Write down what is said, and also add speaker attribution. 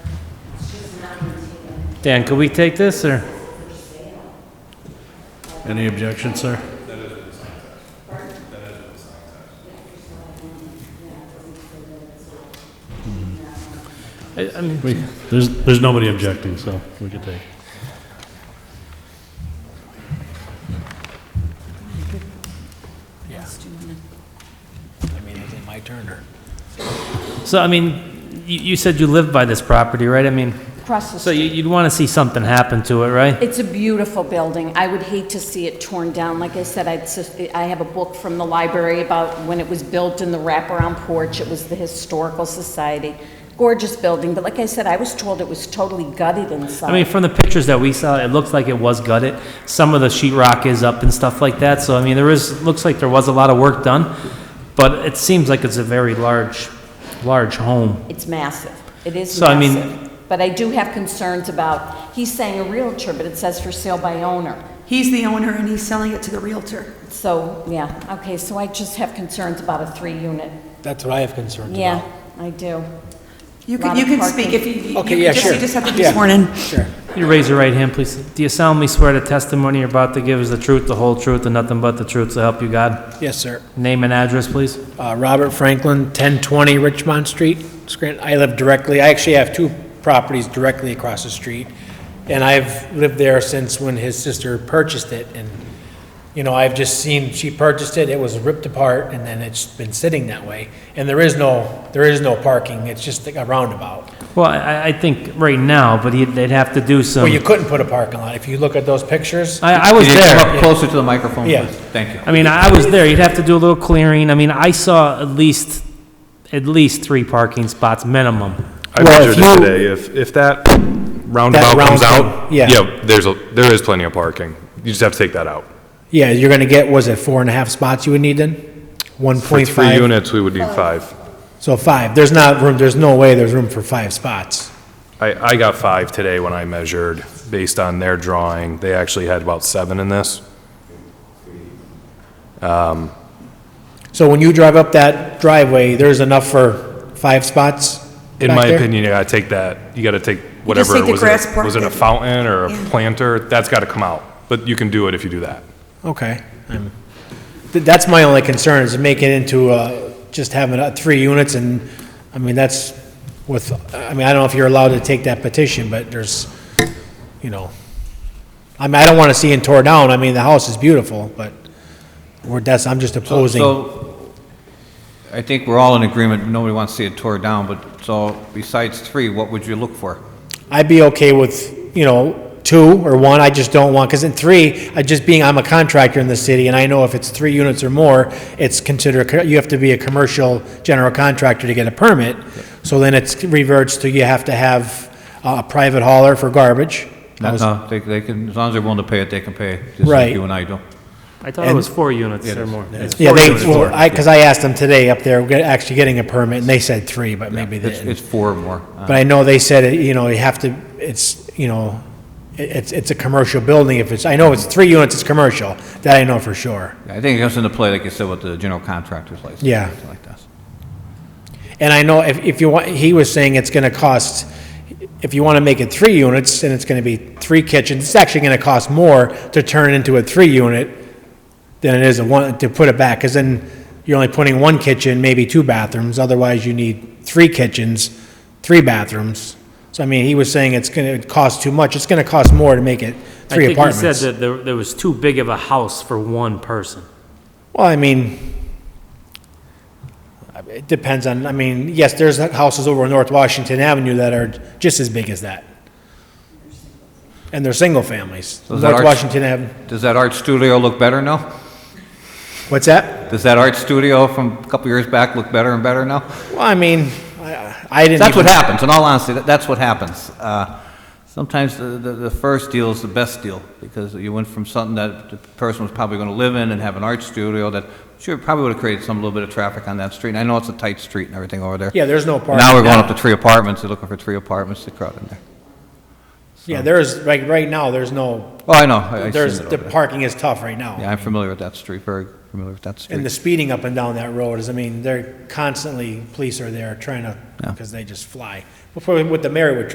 Speaker 1: Dan, could we take this, or?
Speaker 2: Any objection, sir?
Speaker 1: I I mean,
Speaker 2: We, there's, there's nobody objecting, so we could take.
Speaker 3: Yeah. I mean, is it my turn or?
Speaker 1: so, I mean, you, you said you live by this property, right? I mean,
Speaker 4: Across the
Speaker 1: so
Speaker 4: street.
Speaker 1: you, you'd want to see something happen to it, right?
Speaker 4: It's a beautiful building. I would hate to see it torn down. Like I said, I'd, sus- I have a book from the library about when it was built and the wraparound porch. It was the Historical Society. Gorgeous building, but like I said, I was told it was totally gutted inside.
Speaker 1: I mean, from the pictures that we saw, it looks like it was gutted. Some of the sheetrock is up and stuff like that, so I mean, there is, looks like there was a lot of work done, but it seems like it's a very large, large home.
Speaker 4: It's massive. It is
Speaker 1: So, I mean-
Speaker 4: massive. But I do have concerns about, he's saying a realtor, but it says for sale by owner.
Speaker 5: He's the owner and he's selling it to the realtor.
Speaker 4: So, yeah, okay, so I just have concerns about a three-unit.
Speaker 3: That's what I have concerns
Speaker 4: Yeah,
Speaker 3: about.
Speaker 4: I do.
Speaker 5: You can,
Speaker 4: Lot
Speaker 5: you
Speaker 4: of
Speaker 5: can
Speaker 4: parking.
Speaker 5: speak if you, you
Speaker 3: Okay, yeah,
Speaker 5: can just,
Speaker 3: sure.
Speaker 5: you just have to be
Speaker 3: Yeah.
Speaker 5: sworn in.
Speaker 3: Sure.
Speaker 1: Could you raise your right hand, please? Do you solemnly swear the testimony you're about to give is the truth, the whole truth, and nothing but the truth, so help you God?
Speaker 3: Yes, sir.
Speaker 1: Name and address, please.
Speaker 3: Uh, Robert Franklin, 1020 Richmond Street, Scranton. I live directly, I actually have two properties directly across the street, and I've lived there since when his sister purchased it, and, you know, I've just seen, she purchased it, it was ripped apart, and then it's been sitting that way, and there is no, there is no parking, it's just a roundabout.
Speaker 1: Well, I, I think right now, but he'd- they'd have to do some.
Speaker 3: Well, you couldn't put a parking lot, if you look at those pictures.
Speaker 1: I, I was
Speaker 6: Could you come
Speaker 1: there.
Speaker 6: up closer to the microphone,
Speaker 3: Yeah.
Speaker 6: please? Thank you.
Speaker 1: I mean, I I was there. You'd have to do a little clearing. I mean, I saw at least, at least three parking spots minimum.
Speaker 7: I
Speaker 3: Well,
Speaker 7: measured
Speaker 3: if you-
Speaker 7: it today, if, if that roundabout
Speaker 3: round
Speaker 7: comes
Speaker 3: thing,
Speaker 7: out,
Speaker 3: yeah.
Speaker 7: yeah, there's a, there is plenty of parking. You just have to take that out.
Speaker 3: Yeah, you're gonna get, was it four and a half spots you would need then? One
Speaker 7: For
Speaker 3: point
Speaker 7: three
Speaker 3: five,
Speaker 7: units, we would need five.
Speaker 3: so five, there's not room, there's no way there's room for five spots.
Speaker 7: I, I got five today when I measured, based on their drawing. They actually had about seven in this.
Speaker 3: So when you drive up that driveway, there's enough for five spots?
Speaker 7: In
Speaker 3: back
Speaker 7: my
Speaker 3: there?
Speaker 7: opinion, you gotta take that, you gotta take whatever,
Speaker 5: take the
Speaker 7: was it,
Speaker 5: grass
Speaker 7: a-
Speaker 5: part
Speaker 7: was it a
Speaker 5: that-
Speaker 7: fountain or a
Speaker 5: Yeah.
Speaker 7: planter? That's gotta come out, but you can do it if you do that.
Speaker 3: Okay. I'm- th- That's my only concern, is make it into, uh, just having uh, three units, and, I mean, that's with, I mean, I don't know if you're allowed to take that petition, but there's, you know, I mean, I don't want to see it tore down, I mean, the house is beautiful, but, we're that's, I'm just
Speaker 6: So-
Speaker 3: opposing.
Speaker 6: So, I think we're all in agreement, nobody wants to see it tore down, but, so, besides three, what would you look for?
Speaker 3: I'd be okay with, you know, two or one, I just don't want, because in three, I just being, I'm a contractor in the city, and I know if it's three units or more, it's considered, co- you have to be a commercial general contractor to get a permit. So then it's reverts to you have to have a private hauler for garbage. I
Speaker 6: No,
Speaker 3: was-
Speaker 6: No, uh, they, they can, as long as they're willing to pay it, they can pay, just
Speaker 3: Right.
Speaker 6: like you and I do.
Speaker 1: I thought it was four units or more.
Speaker 3: Yeah,
Speaker 6: four
Speaker 3: they,
Speaker 6: units
Speaker 3: well,
Speaker 6: more,
Speaker 3: I, because I asked them today up there, get- actually getting a permit, and they said three, but maybe they
Speaker 6: It's,
Speaker 3: didn't.
Speaker 6: it's four or more. Uh,
Speaker 3: But I know they said, it, you know, you have to, it's, you know, it- it's, it's a commercial building if it's, I know it's three units, it's commercial, that I know for sure.
Speaker 6: I think it comes into play, like you said, with the general contractor's license.
Speaker 3: Yeah.
Speaker 6: something Like that.
Speaker 3: And I know if, if you want, he was saying it's gonna cost, if you wanna make it three units, and it's gonna be three kitchens, it's actually gonna cost more to turn into a three unit than it is a one, to put it back, cause then you're only putting one kitchen, maybe two bathrooms, otherwise you need three kitchens, three bathrooms. So I mean, he was saying it's gonna cost too much, it's gonna cost more to make it three apartments.
Speaker 1: I think he said that there, there was too big of a house for one person.
Speaker 3: Well, I mean, it depends on, I mean, yes, there's houses over on North Washington Avenue that are just as big as that. And they're single families.
Speaker 6: is that
Speaker 3: North
Speaker 6: our-
Speaker 3: Washington Avenue,
Speaker 6: Does that art studio look better now?
Speaker 3: what's that?
Speaker 6: Does that art studio from a couple years back look better and better now?
Speaker 3: Well, I mean, I I didn't.
Speaker 6: That's what
Speaker 3: even-
Speaker 6: happens, in all honesty, that- that's what happens. Uh, Sometimes the, the the first deal is the best deal, because you went from something that the person was probably going to live in and have an art studio that, sure, probably would have created some little bit of traffic on that street. And I know it's a tight street and everything over there.
Speaker 3: Yeah, there's no parking.
Speaker 6: Now we're going up to three apartments, they're looking for three apartments to crowd in there.
Speaker 3: Yeah, there's, like, right now, there's no,
Speaker 6: Oh, I know, I- I've seen
Speaker 3: there's,
Speaker 6: it
Speaker 3: the
Speaker 6: over there.
Speaker 3: parking is tough right now.
Speaker 6: Yeah, I'm familiar with that street, very familiar with that
Speaker 3: And the
Speaker 6: street.
Speaker 3: speeding up and down that road is, I mean, they're constantly, police are there trying to,
Speaker 6: Yeah.
Speaker 3: because they just fly. Before, with the Marywood